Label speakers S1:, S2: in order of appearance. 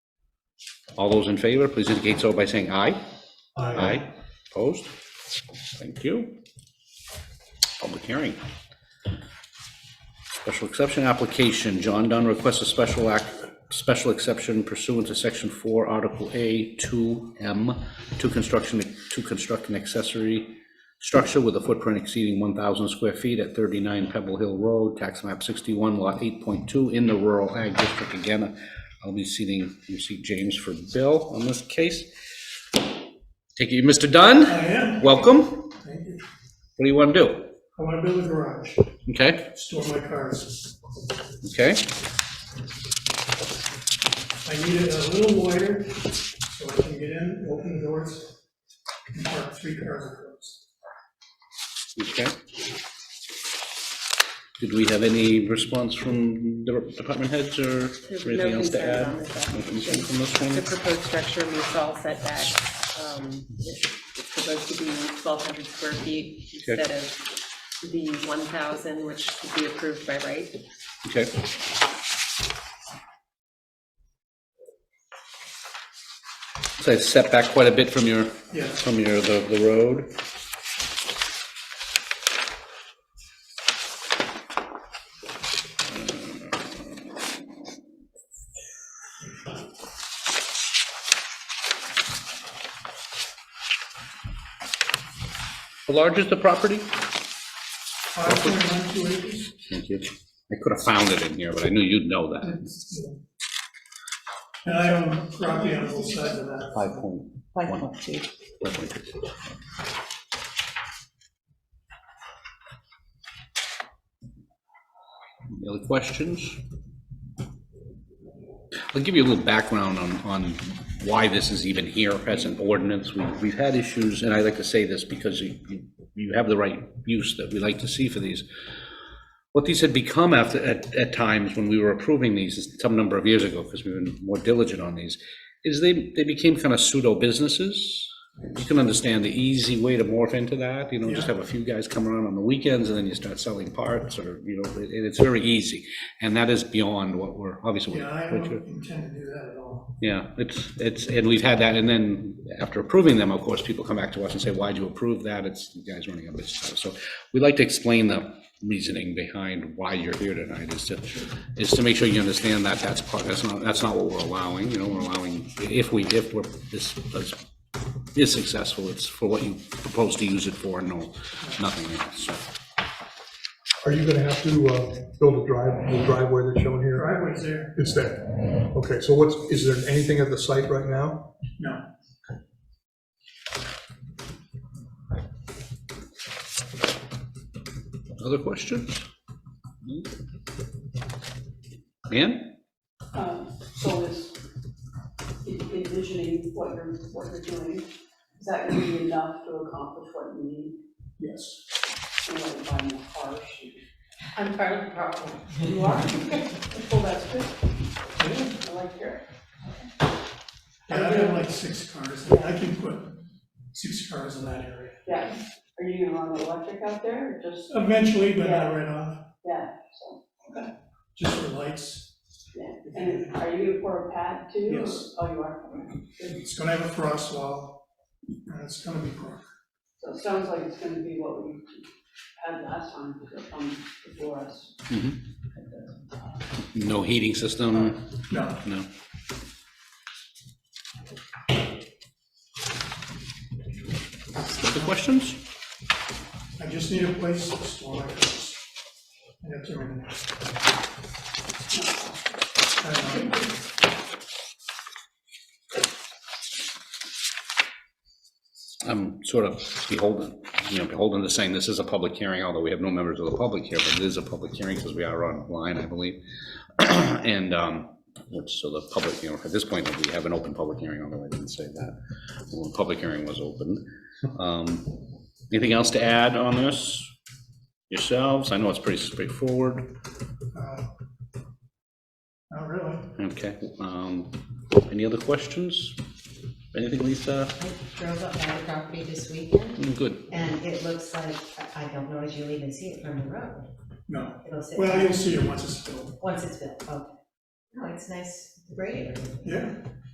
S1: All those in favor, please indicate so by saying aye. Aye. Opposed? Thank you. Public hearing. Special exception application, John Dunn requests a special act, special exception pursuant to section four, article A, two M, to construction, to construct an accessory structure with a footprint exceeding one thousand square feet at thirty-nine Pebble Hill Road, tax map sixty-one, lot eight point two, in the rural ag district. Again, I'll be seating, you see James for Bill on this case. Take you, Mr. Dunn,
S2: I am,
S1: welcome.
S2: thank you.
S1: What do you want to do?
S2: I want to build a garage,
S1: Okay,
S2: store my cars.
S1: okay,
S2: I need it a little wider so I can get in, open the doors, and park three cars across.
S1: okay. Did we have any response from the department heads or
S3: There's
S1: anything
S3: no
S1: else to
S3: concern
S1: add?
S3: on this
S1: No concern from this
S3: The
S1: one?
S3: proposed structure meets all setbacks. Um, It's it's supposed to be 1,200 square feet
S1: Okay.
S3: instead of the 1,000, which could be approved by right.
S1: Okay. So it's set back quite a bit from your,
S2: Yeah.
S1: from your, the, the road. How large is the property?
S2: Five point one two acres.
S1: Thank you. I could have found it in here, but I knew you'd know that.
S2: And I own property on both sides of that.
S1: Five point
S4: Five
S1: one.
S4: point two.
S1: five point two. Any Other questions? I'll give you a little background on, on why this is even here as an ordinance. We- We've had issues, and I like to say this because you, you- you have the right use that we like to see for these what these had become after, at, at times when we were approving these, some number of years ago, because we've been more diligent on these, is they, they became kind of pseudo businesses. You can understand the easy way to morph into that, you know, just have a few guys come around on the weekends and then you start selling parts or, you know, it- it's very easy. And that is beyond what we're, obviously.
S2: Yeah, I
S1: what you're-
S2: don't intend to do that at all.
S1: yeah, it's, it's, and we've had that, and then after approving them, of course, people come back to us and say, why'd you approve that? It's you guys running a business. So we like to explain the reasoning behind why you're here tonight is to, is to make sure you understand that that's part, that's not, that's not what we're allowing, you know, we're allowing, if we, if we're, this this is successful, it's for what you propose to use it for, and no, nothing else, so.
S5: Are you gonna have to uh, build a drive, the driveway that's shown here?
S2: Driveway's there,
S5: It's there. Okay, so what's, is there anything at the site right now?
S2: no.
S1: Other questions? Hmm? Ann?
S6: Um, So is en- envisioning what you're, what you're doing, is that gonna be enough to accomplish what you need?
S2: Yes.
S6: You know, buying the car, she,
S3: I'm part of the problem.
S6: you are, well, that's good. I like your,
S2: Yeah, I have like six cars, and I can put six cars in that area.
S6: yeah, are you gonna run the electric out there, or just,
S2: Eventually, but not right off,
S6: yeah, so,
S2: just for lights.
S6: yeah. And are you gonna pour a pad too? or-
S2: Yes.
S6: Oh, you are, Good.
S2: It's gonna have a frost wall, and it's gonna be brick.
S6: so it sounds like it's gonna be what we had last time, because from before us.
S1: No heating system?
S2: No,
S1: No. Other questions?
S2: I just need a place to store my cars. I have to remember. I don't know.
S1: I'm sort of beholden, you know, beholden to saying this is a public hearing, although we have no members of the public here, but it is a public hearing because we are online, I believe. And, um, which, so the public, you know, at this point, we have an open public hearing, although I didn't say that. Well, the public hearing was open. Um, Anything else to add on this? Yourselves? I know it's pretty straightforward.
S2: Uh, Not really.
S1: Okay, um, any other questions? Anything, Lisa?
S4: Drove up my property this weekend,
S1: Mm, Good,
S4: and it looks like, I I don't know if you'll even see it from the road.
S2: No.
S4: It'll sit,
S2: Well, you'll see it once it's built.
S4: once it's built, okay. No, it's nice grading.
S2: Yeah.